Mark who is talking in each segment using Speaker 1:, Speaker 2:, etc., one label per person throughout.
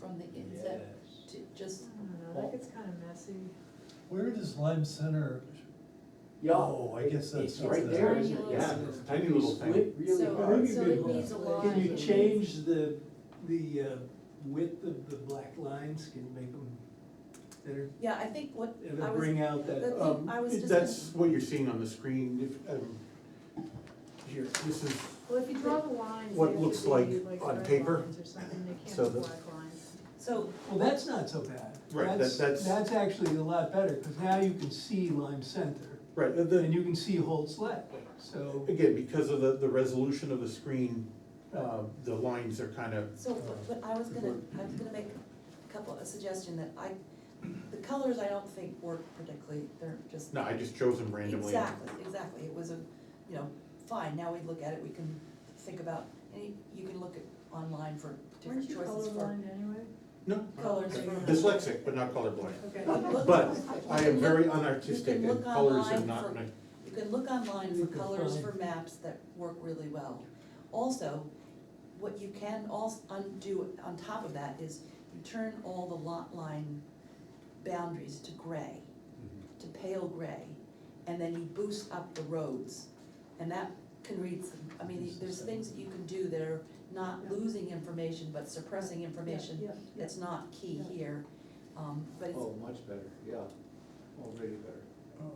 Speaker 1: from the inset
Speaker 2: Yes.
Speaker 1: to just,
Speaker 3: I don't know, that gets kind of messy.
Speaker 4: Where does Lime Center,
Speaker 2: Yeah.
Speaker 4: Oh, I guess that's
Speaker 2: It's
Speaker 4: what
Speaker 2: right
Speaker 4: the-
Speaker 2: there, isn't it?
Speaker 1: Tiny
Speaker 2: Yeah.
Speaker 1: little
Speaker 2: it's
Speaker 4: Tiny little
Speaker 2: Split really
Speaker 1: So- uh,
Speaker 2: hard.
Speaker 1: so it needs a line.
Speaker 5: Can you change the, the uh, width of the black lines, can you make them thinner?
Speaker 1: yeah, I think what I
Speaker 5: It'll
Speaker 1: was,
Speaker 5: bring out that,
Speaker 1: the
Speaker 5: um,
Speaker 1: thing, I was just. gonna-
Speaker 6: That's what you're seeing on the screen, if, um, here, this is,
Speaker 3: Well, if you draw the lines,
Speaker 6: What
Speaker 3: they have to
Speaker 6: looks
Speaker 3: be
Speaker 6: like
Speaker 3: like
Speaker 6: on
Speaker 3: red
Speaker 6: paper,
Speaker 3: lines or something, they
Speaker 6: so
Speaker 3: can't be
Speaker 6: that-
Speaker 3: black lines.
Speaker 1: So,
Speaker 5: well, that's not so bad.
Speaker 6: Right, that- that's-
Speaker 5: That's actually a lot better, because now you can see Lime Center,
Speaker 6: right, and
Speaker 5: and
Speaker 6: then,
Speaker 5: you can see Holt's Lake, so.
Speaker 6: again, because of the, the resolution of the screen, uh, the lines are kind of,
Speaker 1: so, but- but I was gonna, I was gonna make a couple, a suggestion that I, the colors I don't think work particularly, they're just.
Speaker 6: no, I just chose them randomly.
Speaker 1: Exactly, exactly, it was a, you know, fine, now we look at it, we can think about, and you- you can look at online for different
Speaker 3: Weren't you
Speaker 1: choices for.
Speaker 3: colorblind anyway?
Speaker 6: No.
Speaker 1: Colors for-
Speaker 6: Dyslexic, but not colorblind.
Speaker 3: Okay.
Speaker 1: Look-
Speaker 6: But
Speaker 1: you
Speaker 6: I
Speaker 1: can
Speaker 6: am very
Speaker 1: look-
Speaker 6: unartistic
Speaker 1: you can
Speaker 6: and
Speaker 1: look
Speaker 6: colors are
Speaker 1: online
Speaker 6: not,
Speaker 1: for-
Speaker 6: my-
Speaker 1: You can look online for
Speaker 5: You can
Speaker 1: colors
Speaker 5: find-
Speaker 1: for maps that work really well. Also, what you can also undo on top of that is you turn all the lot line boundaries to gray,
Speaker 6: Mm-hmm.
Speaker 1: to pale gray, and then you boost up the roads. And that can read, some- I mean, there's things that you can do that are not
Speaker 3: Yeah.
Speaker 1: losing information, but suppressing information
Speaker 3: Yeah, yeah,
Speaker 1: that's not key
Speaker 3: Yeah.
Speaker 1: here. Um, but it's,
Speaker 2: Oh, much better, yeah, already better.
Speaker 4: um,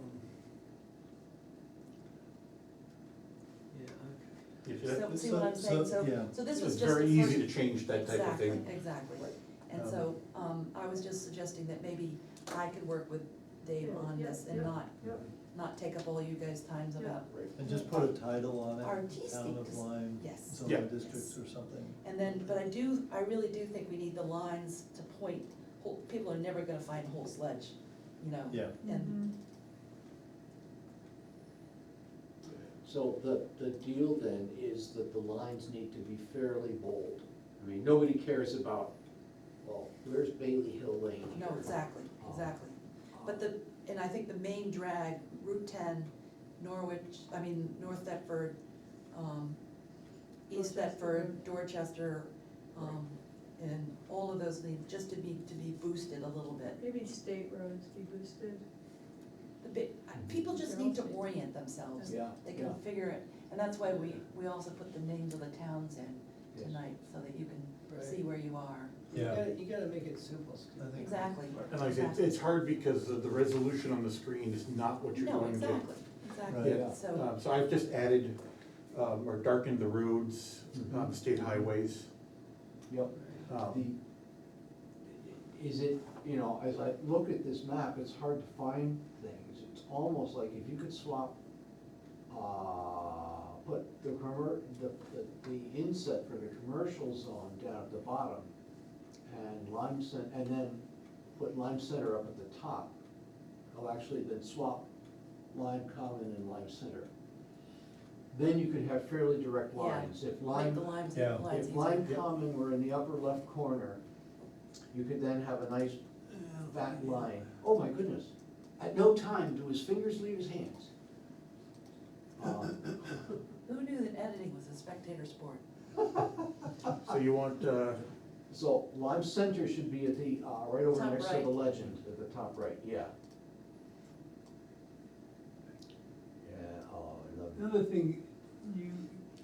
Speaker 5: Yeah, okay.
Speaker 6: Yeah,
Speaker 1: so,
Speaker 6: that-
Speaker 1: see what I'm
Speaker 4: so- so-
Speaker 1: saying, so,
Speaker 4: yeah.
Speaker 1: so this
Speaker 6: It's
Speaker 1: was just the first.
Speaker 6: very easy to change that type of
Speaker 1: Exactly,
Speaker 6: thing.
Speaker 1: exactly.
Speaker 2: Right.
Speaker 1: And
Speaker 6: Um,
Speaker 1: so, um, I was just suggesting that maybe I could work with Dave
Speaker 3: Yeah,
Speaker 1: on
Speaker 3: yeah,
Speaker 1: this and
Speaker 3: yeah.
Speaker 1: not,
Speaker 3: Yep.
Speaker 1: not take up all you guys' times
Speaker 3: Yeah.
Speaker 1: about.
Speaker 2: Right.
Speaker 4: and just put a title on it,
Speaker 1: Artistic,
Speaker 4: Town of Lime,
Speaker 1: yes.
Speaker 6: Yeah.
Speaker 4: Zone Districts or something.
Speaker 1: And then, but I do, I really do think we need the lines to point, Hol- people are never gonna find Holt's Ledge, you know?
Speaker 4: Yeah,
Speaker 1: And,
Speaker 3: Mhm.
Speaker 2: So the, the deal then is that the lines need to be fairly bold. I mean, nobody cares about, well, where's Bailey Hill Lane
Speaker 3: Mm-hmm.
Speaker 2: here?
Speaker 1: no, exactly, exactly. But the, and I think the main drag, Route ten, Norwich, I mean, North Thetford, um, East
Speaker 3: Dorchester.
Speaker 1: Thetford, Dorchester, um, and all of those need, just to be, to be boosted a little bit.
Speaker 3: Maybe state roads be boosted.
Speaker 1: The bit, I-
Speaker 6: Mm-hmm.
Speaker 1: people just need to orient themselves,
Speaker 2: Yeah,
Speaker 1: they
Speaker 2: yeah.
Speaker 1: can figure it, and that's why we, we also put the names of the towns in
Speaker 2: Yes.
Speaker 1: tonight, so that you can
Speaker 7: Right.
Speaker 1: see where you are.
Speaker 7: You
Speaker 4: Yeah.
Speaker 7: gotta, you gotta make it simple, Steve.
Speaker 4: I think-
Speaker 1: Exactly.
Speaker 6: And like I said, it's- it's hard because the, the resolution on the screen is not what you're
Speaker 1: No,
Speaker 6: going to.
Speaker 1: exactly,
Speaker 4: Right.
Speaker 1: exactly, so,
Speaker 6: Um, so I've just added, um, or darkened the roads, um,
Speaker 2: Mhm.
Speaker 6: state highways.
Speaker 2: Yep.
Speaker 6: Um,
Speaker 2: The- Is it, you know, as I look at this map, it's hard to find things. It's almost like if you could swap, uh, put the commer, the, the, the inset for the commercial zone down at the bottom and Lime Cen, and then put Lime Center up at the top. Oh, actually, then swap Lime Common and Lime Center. Then you could have fairly direct
Speaker 1: Yeah,
Speaker 2: lines. If
Speaker 1: like
Speaker 2: Lime,
Speaker 1: the lines,
Speaker 4: Yeah.
Speaker 1: lines.
Speaker 2: if Lime
Speaker 6: Yeah.
Speaker 2: Common were in the upper left corner, you could then have a nice uh, fat line. Oh my goodness, at no time do his fingers leave his hands. Um,
Speaker 1: Who knew that editing was a spectator sport?
Speaker 6: So you want, uh,
Speaker 2: So Lime Center should be at the, uh, right over
Speaker 1: Top
Speaker 2: next to
Speaker 1: right.
Speaker 2: the legend, at the top right, yeah. Yeah, oh, I love
Speaker 5: Another thing, you,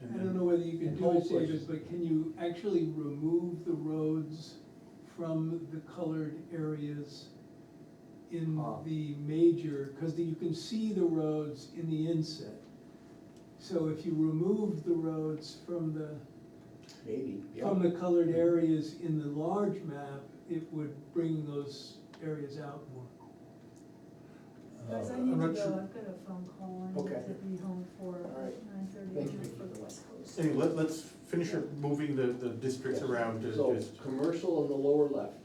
Speaker 5: I don't know whether you can
Speaker 2: And
Speaker 5: do it,
Speaker 2: Holt's Lake.
Speaker 5: David, but can you actually remove the roads from the colored areas in
Speaker 2: Ah.
Speaker 5: the major, because you can see the roads in the inset. So if you remove the roads from the,
Speaker 2: Maybe, yeah.
Speaker 6: Uh,
Speaker 5: from the colored areas in the large map, it would bring those areas out more.
Speaker 3: Guys, I
Speaker 4: Uh,
Speaker 3: need
Speaker 6: I'm
Speaker 3: to
Speaker 6: not
Speaker 3: go,
Speaker 6: sure.
Speaker 3: I've got a phone call, I
Speaker 2: Okay.
Speaker 3: need to be home for
Speaker 2: right.
Speaker 3: nine thirty
Speaker 2: Thank you, Vicky.
Speaker 3: for the West Coast.
Speaker 6: anyway, let, let's finish up moving the, the districts around to
Speaker 2: So,
Speaker 6: just,
Speaker 2: commercial on the lower left,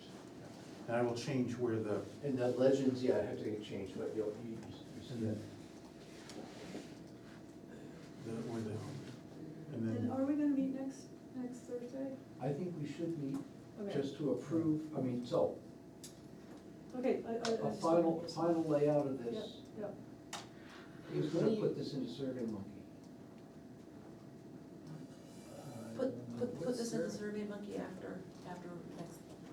Speaker 6: and I will change where the,
Speaker 2: and that legends, yeah, I have to get changed, but you'll, you, you see that.
Speaker 6: the, where the, and
Speaker 3: And
Speaker 6: then,
Speaker 3: are we gonna meet next, next Thursday?
Speaker 2: I think we should meet
Speaker 3: Okay,
Speaker 2: just to approve, I mean, so,
Speaker 3: okay, I, I. I just
Speaker 2: a
Speaker 3: wanna
Speaker 2: final,
Speaker 3: get some-
Speaker 2: final layout of
Speaker 3: Yeah,
Speaker 2: this.
Speaker 3: yeah.
Speaker 2: He's gonna put this into Survey Monkey.
Speaker 4: I
Speaker 1: Put,
Speaker 4: don't know.
Speaker 1: put, put this in the Survey Monkey after,